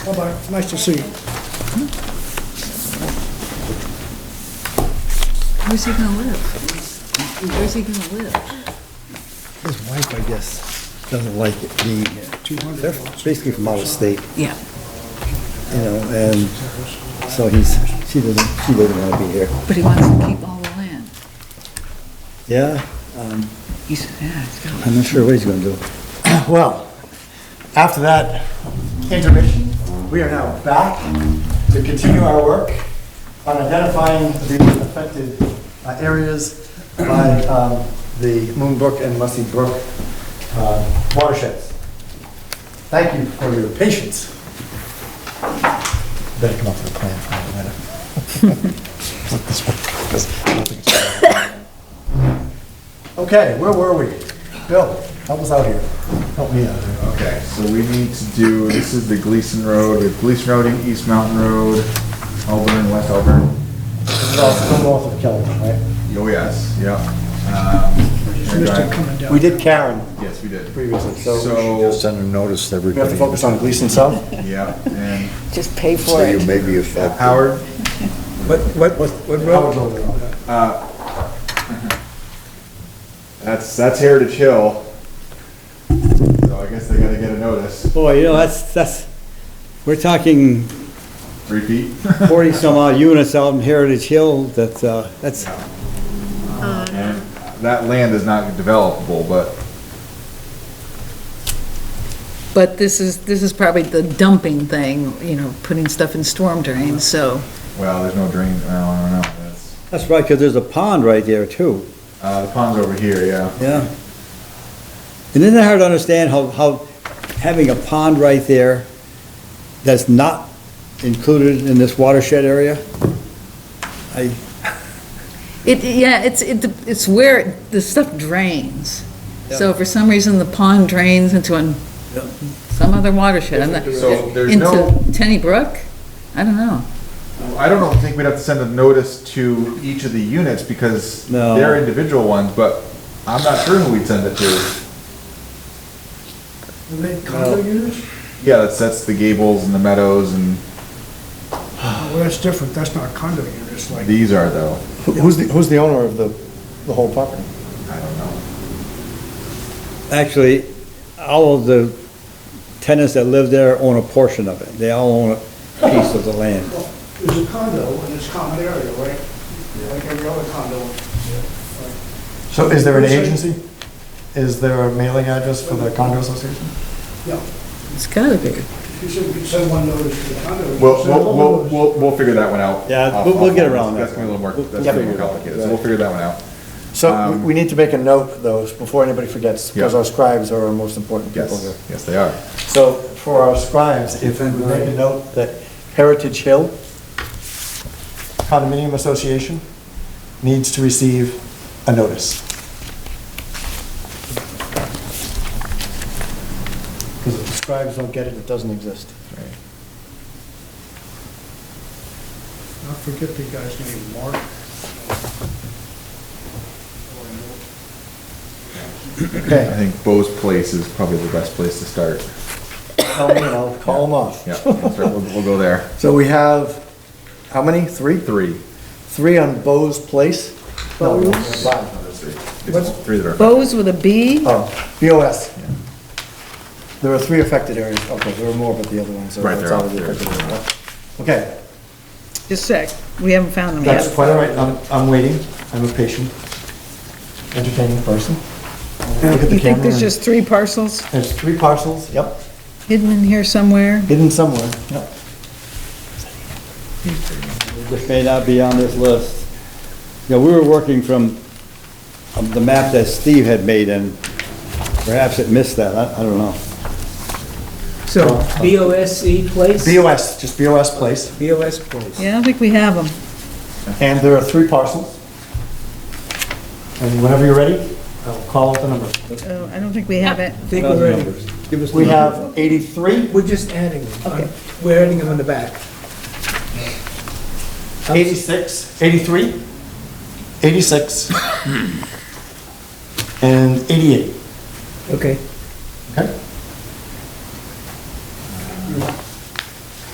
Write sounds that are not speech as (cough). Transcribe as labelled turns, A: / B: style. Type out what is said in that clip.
A: Bye-bye, nice to see you.
B: Where's he gonna live? Where's he gonna live?
C: His wife, I guess, doesn't like it. The, they're basically from out of state,
B: Yeah.
C: you know, and so he's, she doesn't, she doesn't want to be here.
B: But he wants to keep all the land.
C: Yeah,
B: He's, yeah, he's got,
C: I'm not sure what he's going to do.
D: Well, after that intermission, we are now back to continue our work on identifying the affected uh, areas by um, the Moon Brook and Mussey Brook uh, watersheds. Thank you for your patience. Better come up with a plan for it later. Look this way, 'cause I don't think it's- (laughs) Okay, where were we? Bill, help us out here. Help me out here.
E: Okay, so we need to do, this is the Gleason Road, we have Gleason Road and East Mountain Road, Auburn, West Auburn.
D: This is all still north of Kelvin, right?
E: Oh, yes, yeah. Um, we're
A: Mr.
E: driving-
A: coming down.
D: We did Karen
E: Yes, we did.
D: previously, so
E: So,
C: Send a notice to
D: we have to focus on Gleason South.
E: yeah, (laughs) and
B: just pay for
C: So you
B: it.
C: may be affected.
E: Howard,
C: What, what, what
D: Howard Road, yeah.
E: that's, that's Heritage Hill. So I guess they gotta get a notice,
F: Boy, you know, that's, that's, we're talking
E: three feet.
F: forty-some odd units out in Heritage Hill, that, uh, that's,
E: And (laughs) That land is not developable, but
B: But this is, this is probably the dumping thing, you know, putting stuff in storm drains, so.
E: Well, there's no drain, I don't know, that's,
F: that's right, 'cause there's a pond right there too,
E: uh, the pond's over here, yeah.
F: yeah. And isn't it hard to understand how, how having a pond right there that's not included in this watershed area? I,
B: It, yeah, it's, it, it's where it- the stuff drains. So for some reason, the pond drains into an,
F: Yeah.
B: some other watershed, I'm not,
E: So there's no-
B: into Tenny Brook? I don't know.
E: I don't know, think we'd have to send a notice to each of the units because
F: No.
E: they're individual ones, but I'm not sure who we'd send it to.
A: Are they condo units?
E: Yeah, that's, that's the Gables and the Meadows and
A: Well, that's different, that's not condo units, like,
E: these are though,
D: Who- Who's the, who's the owner of the, the whole property?
E: I don't know.
F: actually, all of the tenants that live there own a portion of it, they all own a piece of the land.
A: it's a condo, and it's common area, right? Like every other condo.
D: So is there an agency? Is there a mailing address for the condo association?
A: No,
B: It's gotta be.
A: you said you could send one notice to the condo. you
E: We'll,
A: could send
E: we'll,
A: all
E: we'll,
A: those.
E: we'll, we'll figure that one out.
F: Yeah,
E: Off-
F: we'll- we'll get
E: offline.
F: around
E: That's
F: that
E: gonna be a little more,
F: one.
E: that's gonna be more complicated, so we'll figure that one out.
D: So we- we need to make a note, though, before anybody forgets, because
E: Yeah.
D: our scribes are our most important people here.
E: Yes, yes, they are.
D: So for our scribes, if we make a note that Heritage Hill Condominium Association needs to receive a notice. Because if the scribes don't get it, it doesn't exist.
A: I forget the guy's name, Mark.
E: I
D: Okay,
E: think Bo's Place is probably the best place to start.
D: tell me and I'll call them off.
E: Yeah, we'll, start- we'll we'll go there.
D: So we have, how many? Three?
E: Three.
D: Three on Bo's Place? No, we have five.
E: It's Three that are,
B: Bose with a B?
D: Oh, BOS. There are three affected areas, okay, there are more, but the other ones are.
E: Right, they're
D: outside
E: out
D: of the
E: there.
D: affected area. Okay,
B: Just a sec, we haven't found them
D: that's
B: yet.
D: quite all right, I'm, I'm waiting, I'm a patient, entertaining person. Look at the
B: You think
D: camera.
B: there's just three parcels
D: There's three parcels, yep,
B: hidden in here somewhere?
D: hidden somewhere, yep.
F: This may not be on this list. You know, we were working from um, the map that Steve had made, and perhaps it missed that, I I don't know.
G: So, BOSE E place?
D: BOS, just BOS place,
G: BOS place.
B: Yeah, I don't think we have them.
D: and there are three parcels. And whenever you're ready, I'll call out the number.
B: Oh, I don't think we have it.
G: I think we're ready.
F: Numbers. Give us the
D: We
F: numbers.
D: have eighty-three,
G: We're just adding them. on- We're adding them on the back.
D: eighty-six, eighty-three, eighty-six, and eighty-eight.
G: Okay.